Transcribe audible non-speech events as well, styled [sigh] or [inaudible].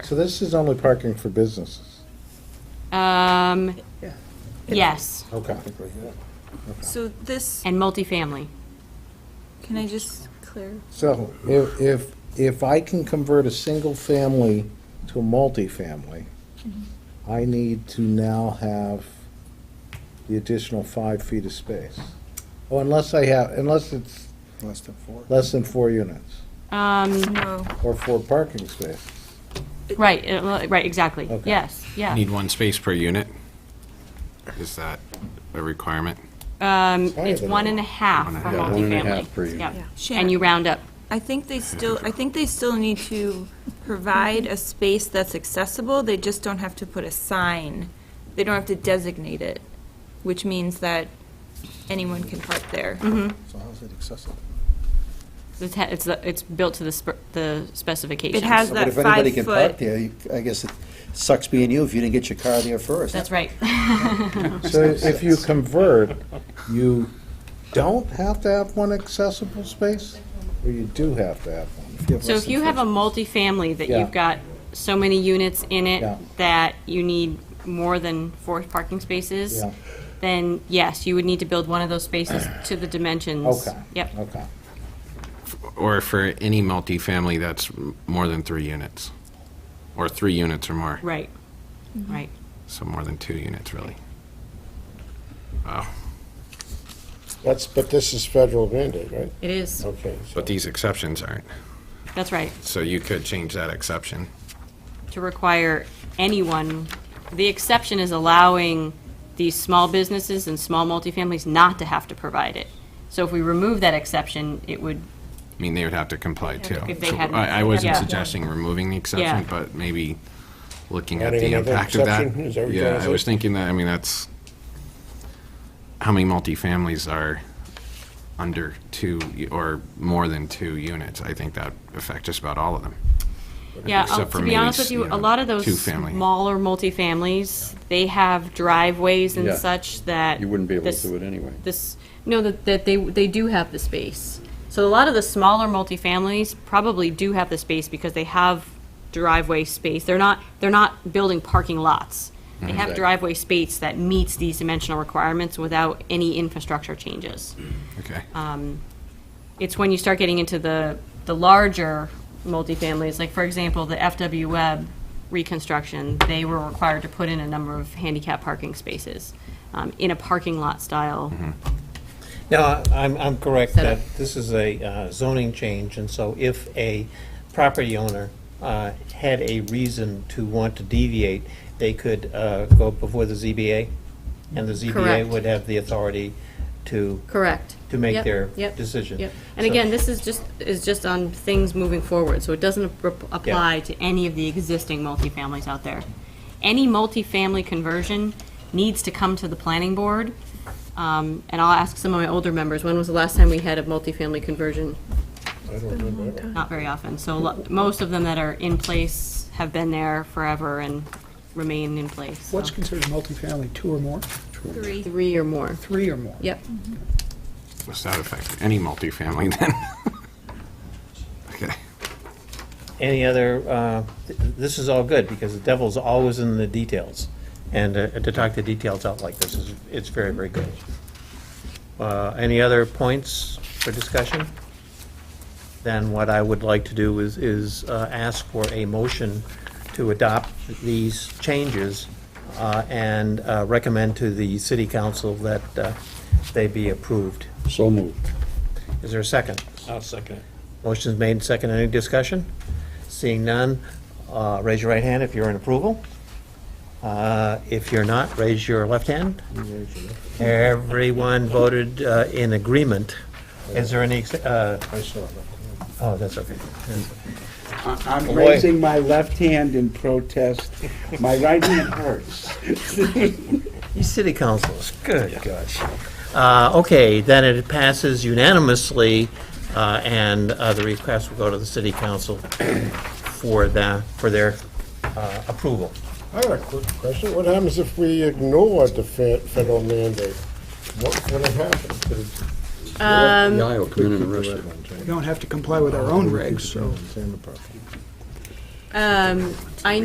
So this is only parking for businesses? Um, Yeah. yes, Okay. So this, and multifamily. can I just clear? So if, if, if I can convert a single family to a multifamily, I need to now have the additional five feet of space. Oh, unless I have, unless it's Less than four. less than four units Um, No. or four parking spaces. right, uh, well, right, exactly. Okay. Yes, yeah. Need one space per unit? Is that a requirement? Um, higher it's than one and a half One for and a multifamily. Yeah, half. one and a half per unit. Yep. Shannon, And you round up. I think they still, I think they still need to provide a space that's accessible, they just don't have to put a sign. They don't have to designate it, which means that anyone can park there. So how's it accessible? It's, ha- it's, the- it's built to the spe- the specifications. It has But that if anybody five can park foot. there, you- I guess it sucks being you if you didn't get your car there first. That's right. So if you convert, you don't have to have one accessible space, or you do have to have one? You have So less if than you have a four. multifamily that Yeah. you've got so many units in Yeah. it that you need more than four parking spaces, Yeah. then yes, you would need to build one of those spaces to the dimensions. Okay. Yep. Okay. Or for any multifamily that's m- more than three units? Or three units or more? Right, right. So more than two units, really? Wow. That's, but this is federal mandate, right? It is, Okay. so- But these exceptions aren't. that's right, So you could change that exception. to require anyone, the exception is allowing these small businesses and small multifamilies not to have to provide it. So if we remove that exception, it would, I mean, they would have to comply too. If they So hadn't- I, I wasn't Yeah. suggesting removing the Yeah. exception, but maybe looking at Adding the another impact of that. exception? Is that what you're trying Yeah, to I say? was thinking that, I mean, that's, how many multifamilies are under two y- or more than two units? I think that affect just about all of them. yeah, I'll- Except to for be maybe honest with s- you, you a know, lot of those two-family. smaller multifamilies, they have driveways and Yeah. such that. You wouldn't be able this- to do it anyway. This, no, that, that they, they do have the space. So a lot of the smaller multifamilies probably do have the space because they have driveway space. They're not, they're not building parking lots. They have driveway space that meets these dimensional requirements without any infrastructure changes. Okay. Uh. It's when you start getting into the, the larger multifamilies, like for example, the FW Web reconstruction, they were required to put in a number of handicap parking spaces um, in a parking lot style No, I'm, I'm correct Set up. that this is a uh, zoning change, and so if a property owner uh, had a reason to want to deviate, they could uh, go before the ZBA, and the Correct. ZBA would have the authority to, Correct. to make Yep, their yep, decision. Yep. And So- again, this is just, is just on things moving forward, so it doesn't ap- apply to any of the existing multifamilies out there. Any multifamily conversion needs to come to the planning board. Um, And I'll ask some of my older members, when was the last time we had a multifamily conversion? Not very often. So lo- most of them that are in place have been there forever and remain in place. so. What's considered multifamily, two or more, Three. Three or more. three or more? Yep. Does that affect any multifamily then? [laughs] Okay. any other, uh, th- this is all good, because the devil's always in the details. And uh, to talk the details out like this is, it's very, very good. Uh, Any other points for discussion? Then what I would like to do is, is uh, ask for a motion to adopt these changes uh, and uh, recommend to the city council that uh, they be approved. So moved. Is there a second? I'll second it. Motion's made and seconded. Any discussion? Seeing none, uh, raise your right hand if you're in approval. Uh, If you're not, raise your left hand. Everyone voted uh, in agreement. Is there any, ex- uh, I saw that. oh, that's okay. I'm Boy. raising my left hand in protest. My right hand hurts. You city councilors, good gosh. Uh, Okay, then it passes unanimously, uh, and uh, the request will go to the city council for the, for their uh, approval. I had a quick question. What happens if we ignore the fe- federal mandate? What would happen? Could it- The aisle, come in and arrest you. We don't have to comply with our own regs, so. Same apartment. Um, I